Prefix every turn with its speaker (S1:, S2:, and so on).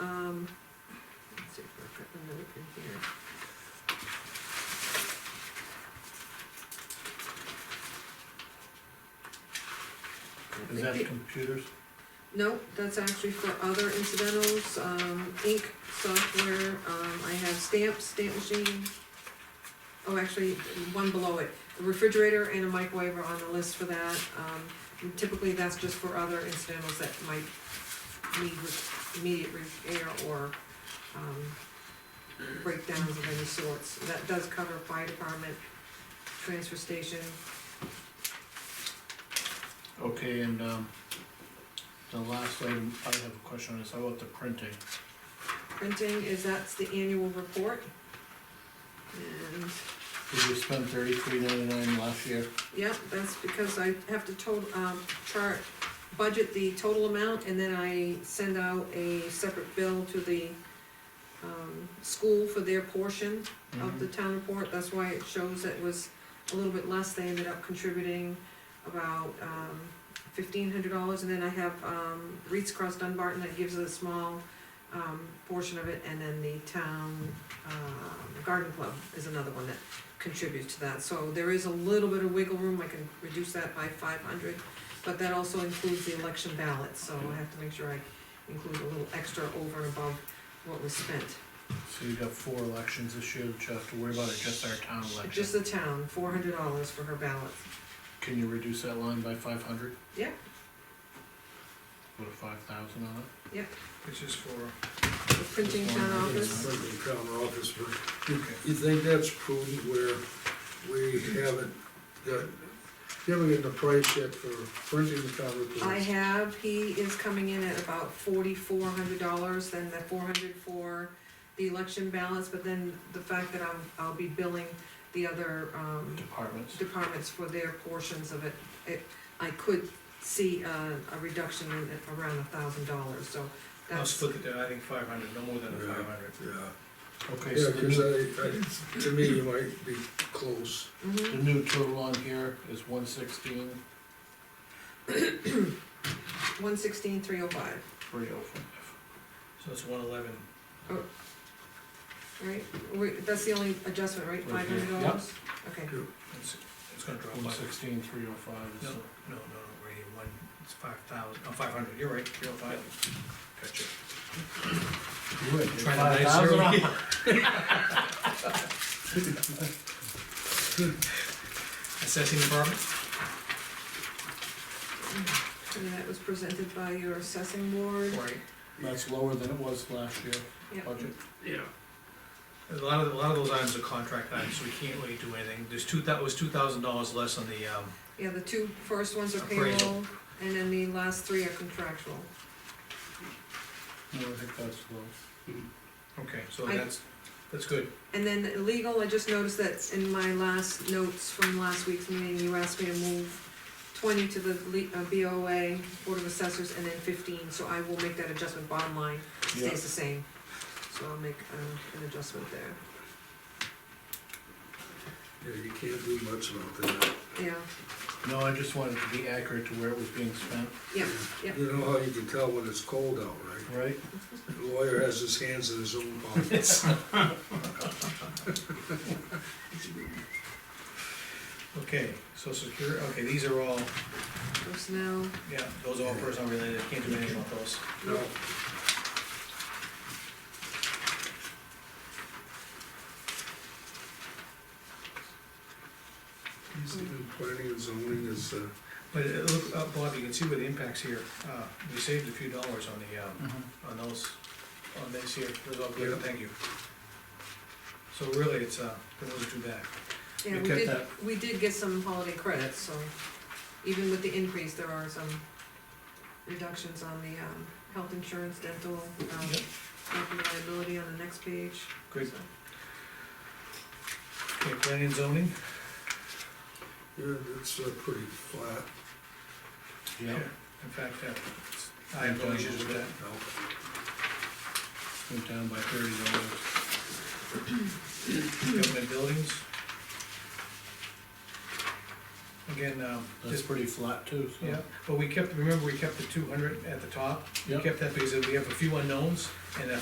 S1: Um, gonna look in here.
S2: Is that computers?
S1: No, that's actually for other incidentals, um, ink, software, um, I have stamps, stamp machine. Oh, actually, one below it, a refrigerator and a microwave are on the list for that, um, typically that's just for other incidentals that might need re- immediate repair or, um, breakdowns of any sorts, that does cover fire department, transfer station,
S2: Okay, and, um, the last item, I have a question on this, how about the printing?
S1: printing, is that's the annual report. And
S2: Did we spend thirty-three ninety-nine last year?
S1: Yep, that's because I have to total, um, chart, budget the total amount, and then I send out a separate bill to the, um, school for their portion
S2: Mm-hmm.
S1: of the town report, that's why it shows that it was a little bit less, they ended up contributing about, um, fifteen hundred dollars, and then I have, um, Reeds Cross Dunbarton that gives a small, um, portion of it, and then the town, um, garden club is another one that contributes to that, so there is a little bit of wiggle room, I can reduce that by five hundred, but that also includes the election ballot, so I have to make sure I include a little extra over and above what was spent.
S2: So you got four elections this year, which you have to worry about, or just our town
S1: Just
S2: election?
S1: the town, four hundred dollars for her ballot.
S2: Can you reduce that line by five hundred?
S1: Yeah.
S2: Put a five thousand on it?
S3: Which is for,
S1: The printing town office,
S4: Like the town office, but
S2: Okay.
S4: you think that's prudent where we haven't got, given it the price yet for printing the town reports?
S1: I have, he is coming in at about forty-four hundred dollars, then the four hundred for the election ballots, but then the fact that I'm, I'll be billing the other, um,
S2: Departments,
S1: departments for their portions of it. It, I could see a, a reduction in, at around a thousand dollars, so
S3: I'll
S1: that's,
S3: split it down, I think five hundred, no more than
S4: Yeah.
S3: five hundred.
S4: Yeah,
S2: okay, so
S4: yeah,
S2: the
S4: cause uh,
S2: new,
S4: I, I, to me, you might be close.
S1: Mhm.
S2: the new total on here is one sixteen,
S1: one sixteen, three oh five,
S2: three oh five.
S3: So it's one eleven.
S1: right? We, that's the only adjustment, right,
S2: Right
S1: five
S2: here.
S1: hundred dollars? Okay.
S3: It's, it's gonna drop by,
S2: One sixteen, three oh five
S3: no,
S2: is
S3: no, no, no, right here, one, it's five thousand, oh, five hundred, you're right, three oh five. Gotcha.
S2: You went
S3: Trying to nice zero. Assessing department,
S1: And that was presented by your assessing board.
S3: right,
S2: That's lower than it was last year,
S1: Yep.
S2: budget.
S4: Yeah.
S3: a lot of, a lot of those items are contract items, so we can't really do anything, there's two, that was two thousand dollars less on the, um,
S1: Yeah, the two first ones are
S3: Appraisal.
S1: payroll, and then the last three are contractual.
S2: No, I think that's low.
S3: okay, so
S1: I-
S3: that's, that's good.
S1: And then legal, I just noticed that in my last notes from last week's meeting, you asked me to move twenty to the le- uh, BOA, Board of Assessors, and then fifteen, so I will make that adjustment, bottom line stays the same. So I'll make, uh, an adjustment there,
S4: Yeah, you can't do much about that.
S1: yeah,
S2: No, I just wanted to be accurate to where it was being spent,
S1: yeah, yeah.
S4: You know how you can tell when it's cold out, right?
S2: right?
S4: The lawyer has his hands in his own pockets.
S3: Okay, so secure, okay, these are all,
S1: personnel,
S3: yeah, those are all personal related, can't do anything about those.
S4: No, he's doing planning and zoning is, uh,
S3: But it look, uh, Bob, you can see where the impacts here, uh, we saved a few dollars on the, um,
S2: Mm-hmm.
S3: on those, on this here, those all good,
S4: Yeah.
S3: thank you. So really, it's, uh, it wasn't too bad.
S1: yeah,
S2: We
S1: we
S2: kept
S1: did,
S2: that.
S1: we did get some holiday credits, so even with the increase, there are some reductions on the, um, health insurance, dental, um,
S3: Yep.
S1: property liability on the next page.
S3: Good.
S1: so.
S3: Okay, planning and zoning,
S4: yeah, it's uh, pretty flat.
S2: Yeah,
S3: in fact, uh, I have no issues with that.
S4: No.
S2: went down by thirty dollars.
S3: Government buildings. Again, um,
S2: That's
S3: just,
S2: pretty flat too, so.
S3: yeah, but we kept, remember, we kept the two hundred at the top? We
S2: Yep.
S3: kept that because we have a few unknowns, and a